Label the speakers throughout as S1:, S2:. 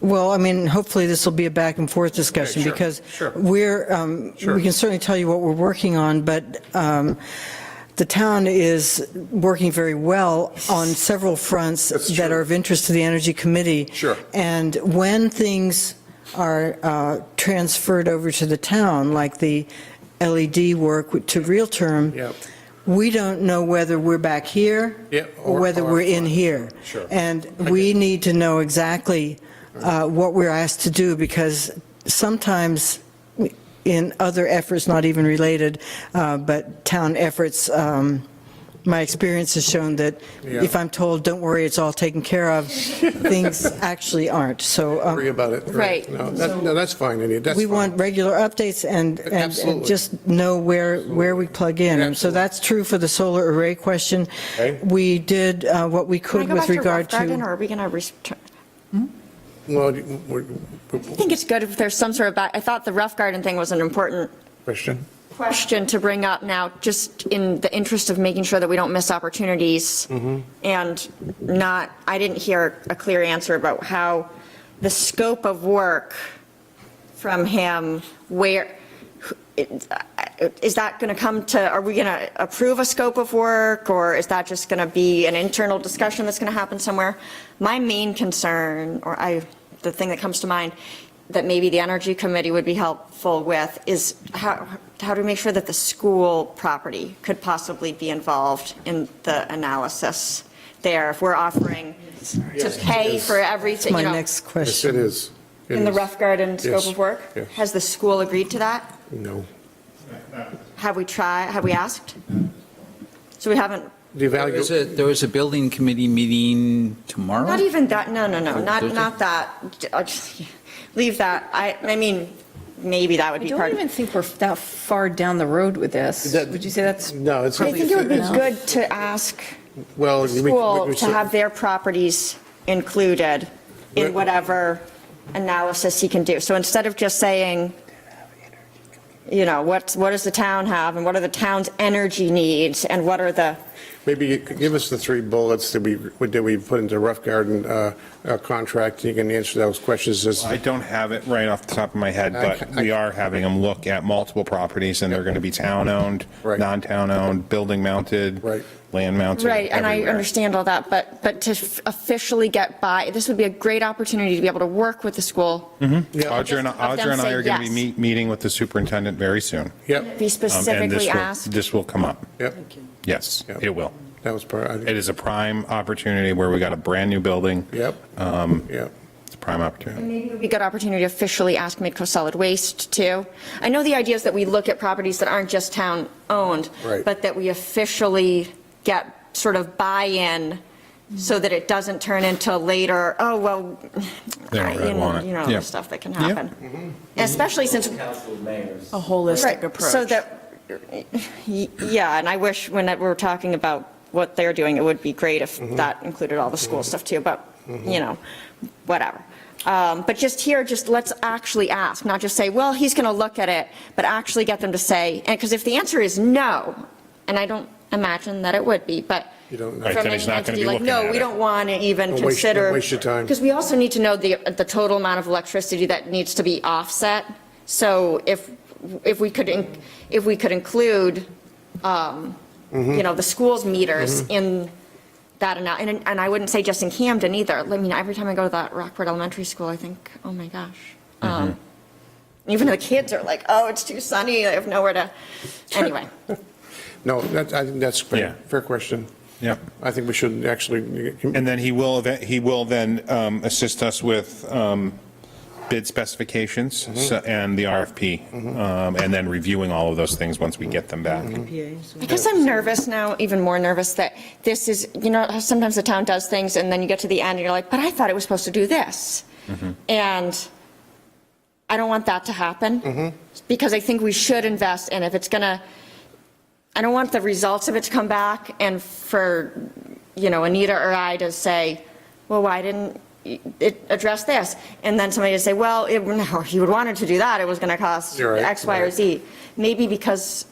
S1: Well, I mean, hopefully this will be a back and forth discussion
S2: sure,
S1: because
S2: sure.
S1: we're, um,
S2: Sure.
S1: we can certainly tell you what we're working on, but um, the town is working very well on several fronts
S2: That's
S1: that
S2: true.
S1: are of interest to the Energy Committee.
S2: Sure.
S1: And when things are uh, transferred over to the town, like the LED work to real term,
S2: Yep.
S1: we don't know whether we're back here
S2: Yeah,
S1: or
S2: or-
S1: whether
S2: or-
S1: we're in here.
S2: Sure.
S1: And we need to know exactly uh, what we're asked to do, because sometimes in other efforts, not even related, uh, but town efforts, um, my experience has shown that
S2: Yeah.
S1: if I'm told, don't worry, it's all taken care of, things actually aren't. So um,
S2: Worry about it.
S3: Right.
S2: No, that- no, that's fine, Anita, that's
S1: we
S2: fine.
S1: want regular updates and, and- and
S2: Absolutely.
S1: just know where, where we plug in. And so
S2: Absolutely.
S1: that's true for the solar array question.
S2: Okay.
S1: We did uh, what we
S3: Can I
S1: could
S3: go back
S1: with
S3: to Rough
S1: regard
S3: Garden, or
S1: to.
S3: are we going to return?
S2: Well, you- we're-
S3: I think it's good if there's some sort of, back- I thought the Rough Garden thing was an important
S2: Question?
S3: question to bring up now, just in the interest of making sure that we don't miss opportunities. And not, I didn't hear a clear answer about how the scope of work from him, where, is that going to come to, are we going to approve a scope of work? Or is that just going to be an internal discussion that's going to happen somewhere? My main concern, or I, the thing that comes to mind, that maybe the Energy Committee would be helpful with is how, how do we make sure that the school property could possibly be involved in the analysis there? If we're offering to pay for everything,
S1: My
S3: you know.
S1: next
S2: Yes,
S1: question.
S2: it is. It
S3: In the
S2: is.
S3: rough garden scope
S2: Yes,
S3: of work?
S2: yes.
S3: Has the school agreed to that?
S2: No.
S3: Have we tried, have we asked? So we haven't,
S2: The
S4: There was
S2: evaluation,
S4: a, there was a building committee meeting tomorrow?
S3: not even that, no, no, no,
S4: Oh,
S3: not,
S4: Thursday?
S3: not that. I just- Leave that. I, I mean, maybe that would
S5: I
S3: be
S5: don't
S3: part
S5: even
S3: of.
S5: think we're that far down the road with this.
S2: That-
S5: Would you say that's?
S2: No, it's-
S3: I
S5: probably
S3: think it would be
S5: enough?
S3: good to ask
S2: well. we- we-
S3: school
S2: Oh, we-
S3: to have their properties included in whatever analysis he can do. So instead of just saying, you know, what's, what does the town have and what are the town's energy needs and what are the,
S2: Maybe you could give us the three bullets that we, that we put into rough garden uh, uh, contract, you can answer those questions as.
S6: I don't have it right off the top of my head, but
S2: I- I-
S6: we are having them look at multiple properties, and they're going to be town-owned,
S2: Right.
S6: non-town-owned, building-mounted,
S2: Right.
S6: land-mounted,
S3: Right, and I
S6: everywhere.
S3: understand all that, but, but to f- officially get by, this would be a great opportunity to be able to work with the school.
S6: Um, Audra and,
S3: Just have them
S6: Audra and I
S3: say
S6: are going to
S3: yes.
S6: be meet- meeting with the superintendent very soon.
S2: Yep,
S3: Be
S6: Um, and this
S3: specifically
S6: will-
S3: asked.
S6: This will come up.
S2: yep,
S6: Yes,
S2: Yep.
S6: it will.
S2: that was part, I-
S6: It is a prime opportunity where we got a brand-new building.
S2: yep,
S6: Um,
S2: yep.
S6: It's a prime opportunity.
S3: Maybe it would be a good opportunity to officially ask Midco Solid Waste too. I know the idea is that we look at properties that aren't just town-owned,
S2: Right.
S3: but that we officially get sort of buy-in so that it doesn't turn into later, oh, well,
S6: They don't
S3: I-
S6: really
S3: you know,
S6: want it.
S3: you know,
S6: Yeah.
S3: the stuff that can happen. Especially since
S7: council of mayors.
S3: Mm-hmm. Right, So that, y- yeah, and I wish when that- we're talking about what they're doing, it would be great if
S7: Mm-hmm.
S3: that included all the school stuff too, but, you know, whatever. Um, But just here, just let's actually ask, not just say, well, he's going to look at it, but actually get them to say, and, because if the answer is no, and I don't imagine that it would be, but
S2: You don't know.
S6: Right,
S3: from
S6: then he's
S3: any
S6: not gonna
S3: entity,
S6: be
S3: like,
S6: looking
S3: no,
S6: at
S3: we
S6: it."
S3: don't want to even
S2: Don't waste- don't
S3: consider.
S2: waste your time.
S3: Because we also need to know the, the total amount of electricity that needs to be offset. So if, if we could, in- if we could include, um,
S2: Mm-hmm.
S3: you know, the school's meters in that, ana- and, and I wouldn't say just in Camden either. I mean, every time I go to that Rockford Elementary School, I think, oh my gosh.
S6: Mm-hmm.
S3: Um, Even the kids are like, oh, it's too sunny, I have nowhere to, anyway.
S2: No, that, I think that's
S6: Yeah.
S2: fair, fair question.
S6: Yep.
S2: I think we should actually.
S6: And then he will, eve- he will then um, assist us with um, bid specifications so- and the RFP, um, and then reviewing all of those things once we get them back.
S1: Mm-hmm.
S3: I guess I'm nervous now, even more nervous that this is, you know, how sometimes the town does things and then you get to the end and you're like, but I thought it was supposed to do this.
S2: Mm-hmm.
S3: And I don't want that to
S2: Mm-hmm.
S3: happen. Because I think we should invest and if it's gonna, I don't want the results of it to come back and for, you know, Anita or I to say, well, why didn't it address this? And then somebody to say, well, it, no, you would wanted to do that, it was gonna cost
S2: You're right,
S3: X, Y, or
S2: right.
S3: Z. Maybe because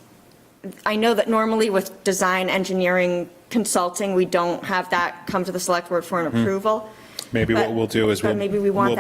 S3: I know that normally with design, engineering, consulting, we don't have that come to the select board for an approval.
S6: Mm-hmm. Maybe what
S3: But-
S6: we'll do is
S3: but
S6: we'll-
S3: maybe we want
S6: we'll